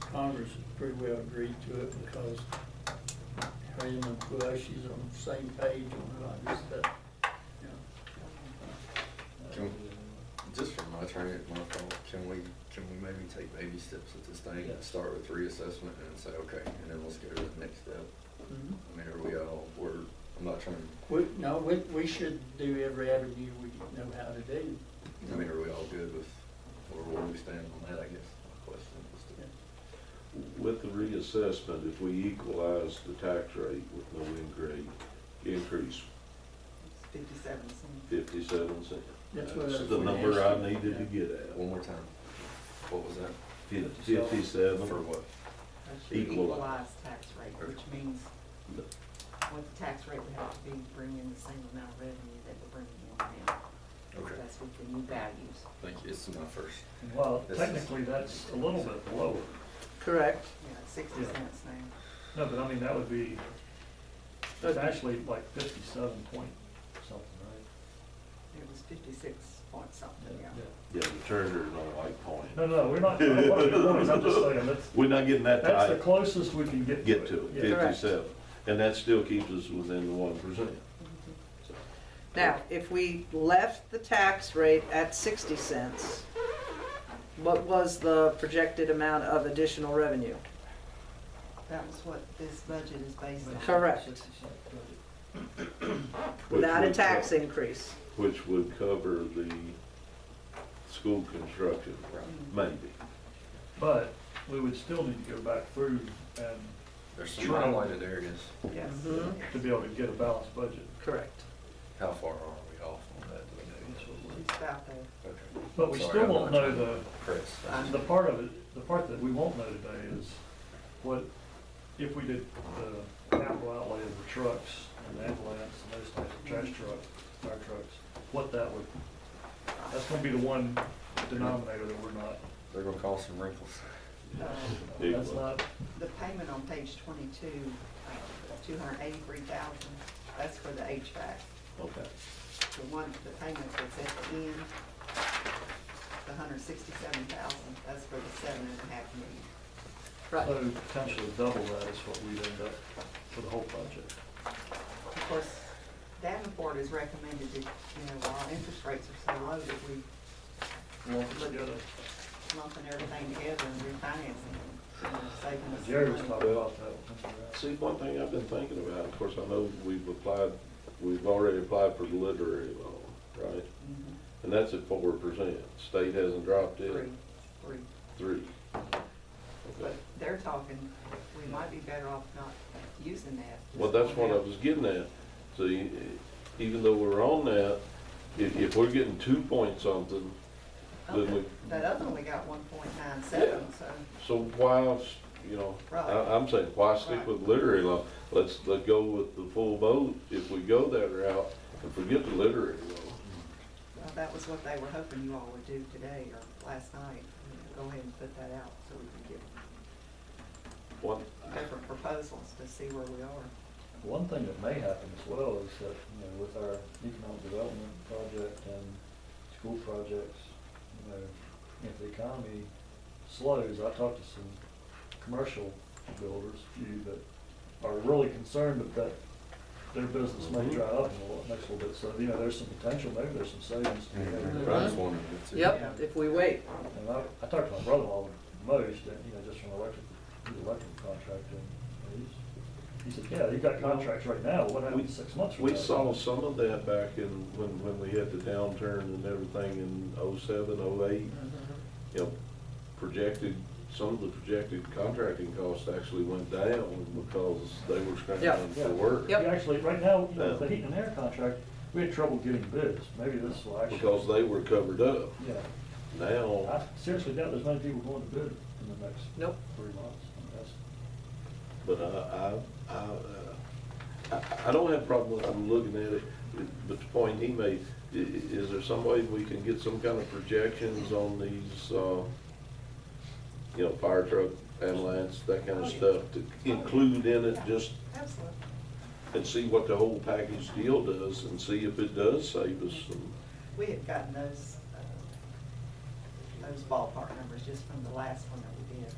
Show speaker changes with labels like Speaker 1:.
Speaker 1: Congress pretty well agreed to it because Helen and Bush, she's on the same page on a lot of this stuff. you know.
Speaker 2: Can, just from my train my thought, can we, can we maybe take baby steps at this thing?
Speaker 1: Yeah.
Speaker 2: Start with reassessment and say, okay, and then let's go to the next step.
Speaker 1: Mhm.
Speaker 2: I mean, are we all, we're, I'm not trying,
Speaker 1: We, no, we, we should do every avenue we know how to do.
Speaker 2: I mean, are we all good with, or where we stand on that, I guess, my question is to.
Speaker 1: Yeah.
Speaker 3: With the reassessment, if we equalize the tax rate with no increase, increase
Speaker 4: Fifty-seven cents.
Speaker 3: fifty-seven cents.
Speaker 1: That's what I
Speaker 3: That's
Speaker 1: was
Speaker 3: the
Speaker 1: gonna
Speaker 3: number
Speaker 1: ask
Speaker 3: I
Speaker 1: you.
Speaker 3: needed to get
Speaker 2: One
Speaker 3: at,
Speaker 2: more time, what was that?
Speaker 3: Fif- fifty-seven.
Speaker 2: For what?
Speaker 4: That's your
Speaker 3: Equal-
Speaker 4: equalized tax rate, which means what the tax rate would have to be to bring in the same amount of revenue that we're bringing in now.
Speaker 2: Okay,
Speaker 4: That's with the new values.
Speaker 2: thank you, it's my first.
Speaker 5: Well,
Speaker 2: This is-
Speaker 5: technically, that's a little bit lower.
Speaker 1: Correct.
Speaker 4: Yeah, sixty
Speaker 5: Yeah.
Speaker 4: cents now.
Speaker 5: No, but I mean, that would be, that's actually like fifty-seven point something, right?
Speaker 4: It was fifty-six point something, yeah.
Speaker 3: Yeah, the treasurer don't like
Speaker 5: No,
Speaker 3: pointing.
Speaker 5: no, we're not, doing what we're doing is I'm just saying, that's,
Speaker 3: We're not getting that
Speaker 5: that's the
Speaker 3: tight,
Speaker 5: closest we can get to
Speaker 3: get
Speaker 5: it.
Speaker 3: to it,
Speaker 5: Yeah.
Speaker 1: Correct.
Speaker 3: fifty-seven, and that still keeps us within the one percent.
Speaker 6: Now, if we left the tax rate at 60 cents, what was the projected amount of additional revenue?
Speaker 4: That was what this budget is based on.
Speaker 6: Correct.
Speaker 3: which
Speaker 6: Without a
Speaker 3: would co-
Speaker 6: tax e- increase.
Speaker 3: Which would cover the school construction,
Speaker 4: Mm,
Speaker 3: maybe.
Speaker 5: But we would still need to go back through and
Speaker 2: There's some
Speaker 5: Sure.
Speaker 2: highlighted areas,
Speaker 4: Yes.
Speaker 6: Mhm.
Speaker 5: to be able to get a balanced budget.
Speaker 6: Correct.
Speaker 2: how far are we off on that, do we know?
Speaker 4: It's about there.
Speaker 2: Okay.
Speaker 5: But we
Speaker 2: Sorry,
Speaker 5: still
Speaker 2: I'm
Speaker 5: won't
Speaker 2: not
Speaker 5: know
Speaker 2: trying to
Speaker 5: the,
Speaker 2: press.
Speaker 5: the part of it, the part that we won't know today is what, if we did the capital outlay of the trucks and the ambulance and those types of trash trucks, fire trucks, what that would, that's gonna be the one denominator that we're not,
Speaker 2: They're gonna cause some wrinkles.
Speaker 4: Uh,
Speaker 3: Yeah.
Speaker 5: that's not,
Speaker 4: The payment on page twenty-two, uh, two hundred eighty-three thousand, that's for the HVAC.
Speaker 3: Okay.
Speaker 4: The one, the payment that's at the end, the hundred sixty-seven thousand, that's for the seven and a half million.
Speaker 6: Right.
Speaker 5: so potentially double that is what we'd end up for the whole budget.
Speaker 4: Of course, Davenport has recommended that, you know, our interest rates are so low that we
Speaker 5: Lump it together.
Speaker 4: lumping everything together and refinancing and saving us.
Speaker 5: Jerry was
Speaker 4: money.
Speaker 5: talking about that.
Speaker 3: See, one thing I've been thinking about, of course, I know we've applied, we've already applied for the literary loan, right?
Speaker 4: Mhm.
Speaker 3: And that's at four percent. State hasn't dropped it,
Speaker 4: Three, three.
Speaker 3: three. Okay.
Speaker 4: But they're talking, we might be better off not using that.
Speaker 3: Well, that's what I was getting at. So you- even though we're on that, if, if we're getting two point something, then we,
Speaker 4: That other one, we got one point nine seven, so,
Speaker 3: so why else, you know? I, I'm saying, why stick with literary loan? Let's, let go with the full boat if we go that route and forget the literary loan.
Speaker 4: well, that was what they were hoping you all would do today or last night. Go ahead and put that out so we can
Speaker 3: What,
Speaker 4: get different proposals to see where we are.
Speaker 5: One thing that may happen as well is that, you know, with our economic development project and school projects, you know, if the economy slows, I talked to some commercial builders, few that are really concerned that that their business may dry up in the next little bit, so, you know, there's some potential, maybe there's some savings. to be
Speaker 2: Mhm.
Speaker 5: had.
Speaker 2: But I just wondered if it's-
Speaker 6: Yep, if we wait.
Speaker 5: And I, I talked to my brother-in-law most, and, you know, just from electric, he's an electric contractor, and he's, he said, yeah, you've got contracts right now, what
Speaker 3: We-
Speaker 5: happened six months from now?
Speaker 3: We saw some of that back in, when, when we had the downturn and everything in oh oh-seven, oh-eight. You know, projected, some of the projected contracting costs actually went down because they were
Speaker 6: Yeah.
Speaker 3: scrambling for work.
Speaker 5: We Actually, right now, you know,
Speaker 3: Yeah.
Speaker 5: the heat and air contract, we had trouble getting bids, maybe this will actually.
Speaker 3: Because they were covered up.
Speaker 5: Yeah,
Speaker 3: Now,
Speaker 5: I seriously doubt there's many people going to bid in the next
Speaker 6: Nope.
Speaker 5: three months, I mean, that's.
Speaker 3: but I, I, I, uh, I, I don't have a problem with them looking at it, but the point he made, i- i- is there some way we can get some kind of projections on these, uh, you know, fire truck, ambulance, that kind of stuff to include in it just,
Speaker 4: Absolutely.
Speaker 3: and see what the whole package deal does and see if it does save us some.
Speaker 4: We had gotten those, uh, those ballpark numbers just from the last one that we did.